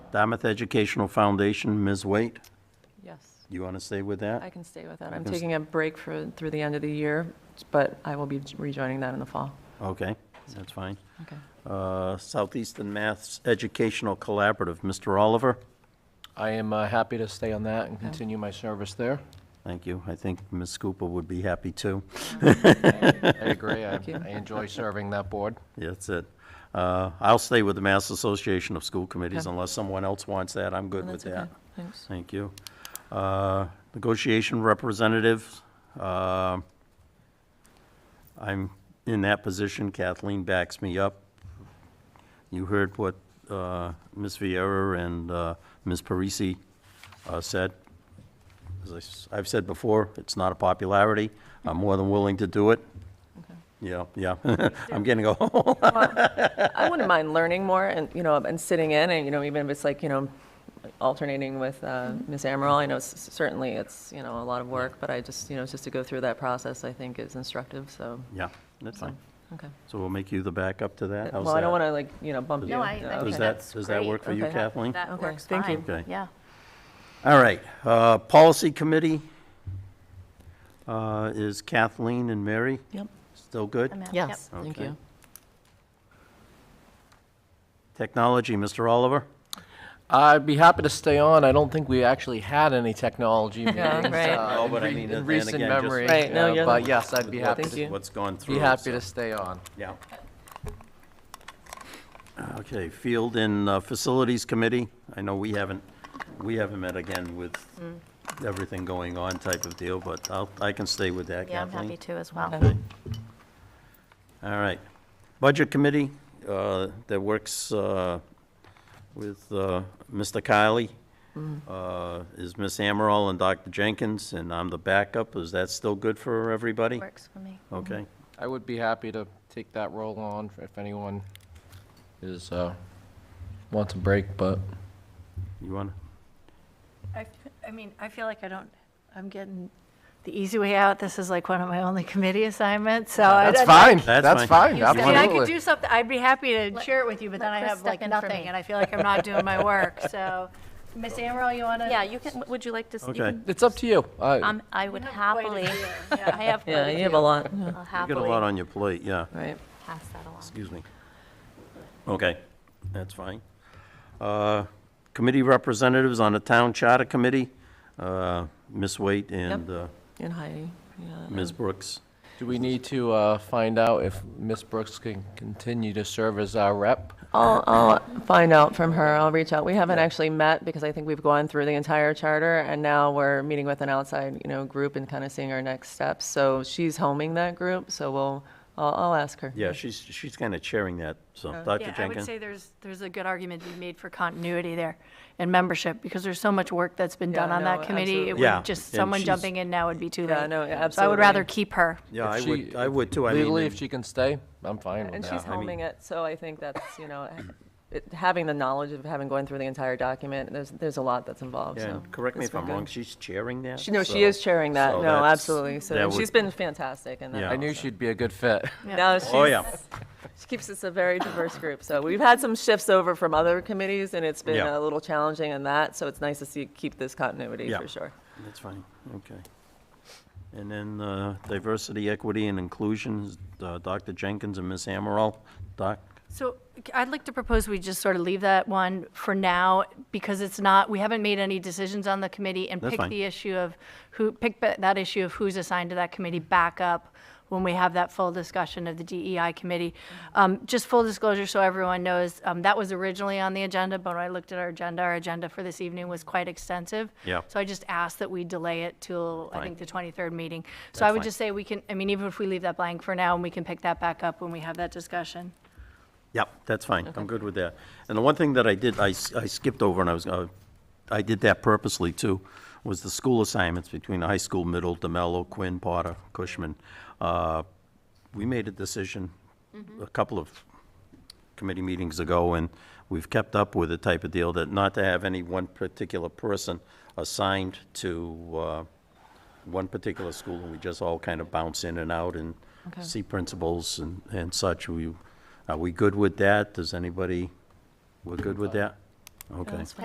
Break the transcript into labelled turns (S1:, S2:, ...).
S1: Dartmouth Educational Foundation, Ms. Waite,
S2: Yes,
S1: you want to stay with that?
S2: I can stay with that. I'm
S1: can s-
S2: taking a break for, through the end of the year, but I will be rejoining that in the fall.
S1: Okay, that's fine.
S2: Okay.
S1: Uh, Southeastern Maths Educational Collaborative, Mr. Oliver?
S3: I am uh, happy to stay on that and continue my service there.
S1: Thank you. I think Ms. Cooper would be happy too.
S3: I agree. I
S2: you.
S3: I enjoy serving that board.
S1: Yeah, That's it. Uh, I'll stay with the Mass Association of School Committees
S2: Okay.
S1: unless someone else wants that. I'm good with
S2: That's
S1: that.
S2: okay. Thanks.
S1: Thank you. Uh, Negotiation representative, uh, I'm in that position. Kathleen backs me up. You heard what uh, Ms. Viera and uh, Ms. Parisi uh, said. As I have said before, it's not a popularity. I'm more than willing to do it. Yeah, yeah. I'm getting a,
S2: I wouldn't mind learning more and, you know, and sitting in and, you know, even if it's like, you know, alternating with uh, Ms. Amaral, I know s- certainly it's, you know, a lot of work, but I just, you know, just to go through that process, I think is instructive, so,
S1: yeah, that's fine.
S2: okay.
S1: So we'll make you the backup to that. How's
S2: Well, I don't
S1: that?
S2: want to like, you know, bump you.
S1: No,
S4: I- I
S2: Yeah,
S4: think
S2: okay.
S1: Does that,
S4: that's
S1: does that work for you,
S2: Okay.
S1: Kathleen?
S4: That
S2: Okay,
S4: works
S2: thank you.
S4: fine.
S1: Okay.
S4: Yeah.
S1: All right, uh, Policy Committee uh, is Kathleen and Mary,
S2: Yep,
S1: still good?
S4: I'm out. Yep.
S2: yes, thank
S1: Okay.
S2: you.
S1: Technology, Mr. Oliver?
S3: I'd be happy to stay on. I don't think we actually had any technology meetings.
S2: Yeah, right.
S3: uh,
S1: No, Oh,
S3: in
S1: but I
S3: re-
S1: mean, then
S3: In recent
S1: again, just-
S3: memory.
S2: Right, no,
S3: uh,
S2: you're
S3: But
S2: the-
S3: yes, I'd be happy,
S2: Thank
S3: to-
S2: you.
S1: What's gone through.
S3: be happy
S1: so-
S3: to stay on.
S1: Yeah. Okay, Field and uh, Facilities Committee, I know we haven't, we haven't met again with
S4: Mm.
S1: everything going on type of deal, but I'll, I can stay with that,
S4: Yeah, I'm
S1: Kathleen.
S4: happy to as well.
S2: Okay.
S1: All right. Budget Committee uh, that works uh, with uh, Mr. Kiley uh, is Ms. Amaral and Dr. Jenkins, and I'm the backup. Is that still good for everybody?
S4: Works for me.
S1: Okay.
S3: I would be happy to take that role on if anyone is, uh, wants a break, but
S1: You want,
S5: I, I mean, I feel like I don't, I'm getting the easy way out. This is like one of my only committee assignments, so. I-
S3: that's
S5: I-
S3: fine.
S1: That's
S3: That's
S1: fine.
S3: fine,
S5: I mean, I could
S3: absolutely.
S5: do something, I'd be happy to
S4: Let-
S5: share it with you, but
S4: let
S5: then I
S4: Chris
S5: have
S4: step
S5: like
S4: in for
S5: nothing,
S4: me.
S5: and I feel like I'm not doing my work, so. Ms. Amaral, you want to?
S4: Yeah, you can, would you like to? you
S1: okay.
S4: can-
S3: It's up to you. I-
S4: Um, I would
S5: quite a
S4: happily,
S5: deal,
S4: I have. quite
S2: Yeah, you have a
S4: deal.
S2: lot, yeah,
S4: I'll
S1: You got a lot
S4: happily
S1: on your plate, yeah.
S2: right.
S4: pass that along.
S1: Excuse me. Okay, that's fine. Uh, Committee representatives on the Town Charter Committee, uh, Ms. Waite and uh,
S2: And Heidi, yeah.
S1: Ms. Brooks.
S3: Do we need to uh, find out if Ms. Brooks can continue to serve as our rep?
S2: I'll, I'll find out from her. I'll reach out. We haven't actually met because I think we've gone through the entire charter and now we're meeting with an outside, you know, group and kind of seeing our next steps. So she's homing that group, so we'll, I'll, I'll ask her.
S1: Yeah, she's, she's kind of chairing that, so, Dr.
S5: Uh, Yeah,
S1: Jenkins?
S5: I would say there's, there's a good argument to be made for continuity there and membership, because there's so much work that's been
S2: Yeah,
S5: done on
S2: no,
S5: that committee. It
S2: absolutely.
S1: Yeah,
S5: would just,
S1: and
S5: someone
S1: she's-
S5: jumping in now would be too late.
S2: Yeah, no, yeah,
S5: So I would rather
S2: absolutely.
S5: keep her.
S1: Yeah, I
S3: If
S1: would,
S3: she-
S1: I would too. I mean,
S3: Legally,
S1: and-
S3: if she can stay, I'm fine with
S2: And
S3: that.
S2: she's homing it, so I think that's, you know, it, having the knowledge of having gone through the entire document, there's, there's a lot that's involved,
S1: yeah,
S2: so.
S1: and correct me
S2: it's
S1: if
S2: been
S1: I'm
S2: good.
S1: wrong, she's chairing that?
S2: She, no,
S1: so-
S2: she is chairing that.
S1: so
S2: No,
S1: that's-
S2: absolutely.
S1: that
S2: So
S1: would-
S2: she's been fantastic in that.
S1: Yeah.
S3: I knew she'd be a good fit.
S2: Now
S1: Oh,
S2: she's,
S1: yeah,
S2: She keeps us a very diverse group. So we've had some shifts over from other committees, and it's been
S1: Yeah.
S2: a little challenging in that. So it's nice to see keep this continuity
S1: Yeah.
S2: for sure.
S1: that's fine, okay. And then uh, diversity, equity, and inclusion, is, uh, Dr. Jenkins and Ms. Amaral. Doc,
S5: So c- I'd like to propose we just sort of leave that one for now, because it's not, we haven't made any decisions on the committee, and
S1: That's
S5: pick
S1: fine.
S5: the issue of who, pick ba- that issue of who's assigned to that committee back up when we have that full discussion of the DEI committee. Um, Just full disclosure, so everyone knows, um, that was originally on the agenda, but when I looked at our agenda, our agenda for this evening was quite extensive.
S1: Yeah.
S5: So I just asked that we delay it till, I
S1: Fine.
S5: think, the 23rd meeting. So I would
S1: fine.
S5: just say we can, I mean, even if we leave that blank for now, and we can pick that back up when we have that discussion.
S1: Yep, that's fine, I'm good with that. And the one thing that I did, I s- I skipped over, and I was, uh, I did that purposely too, was the school assignments between the high school, middle, DeMello, Quinn, Potter, Cushman. Uh, We made a decision a couple of committee meetings ago, and we've kept up with the type of deal that not to have any one particular person assigned to uh, one particular school, and we just all kind of bounce in and out and
S2: Okay.
S1: see principals and, and such. We, are we good with that? Does anybody, we're good with that? Okay.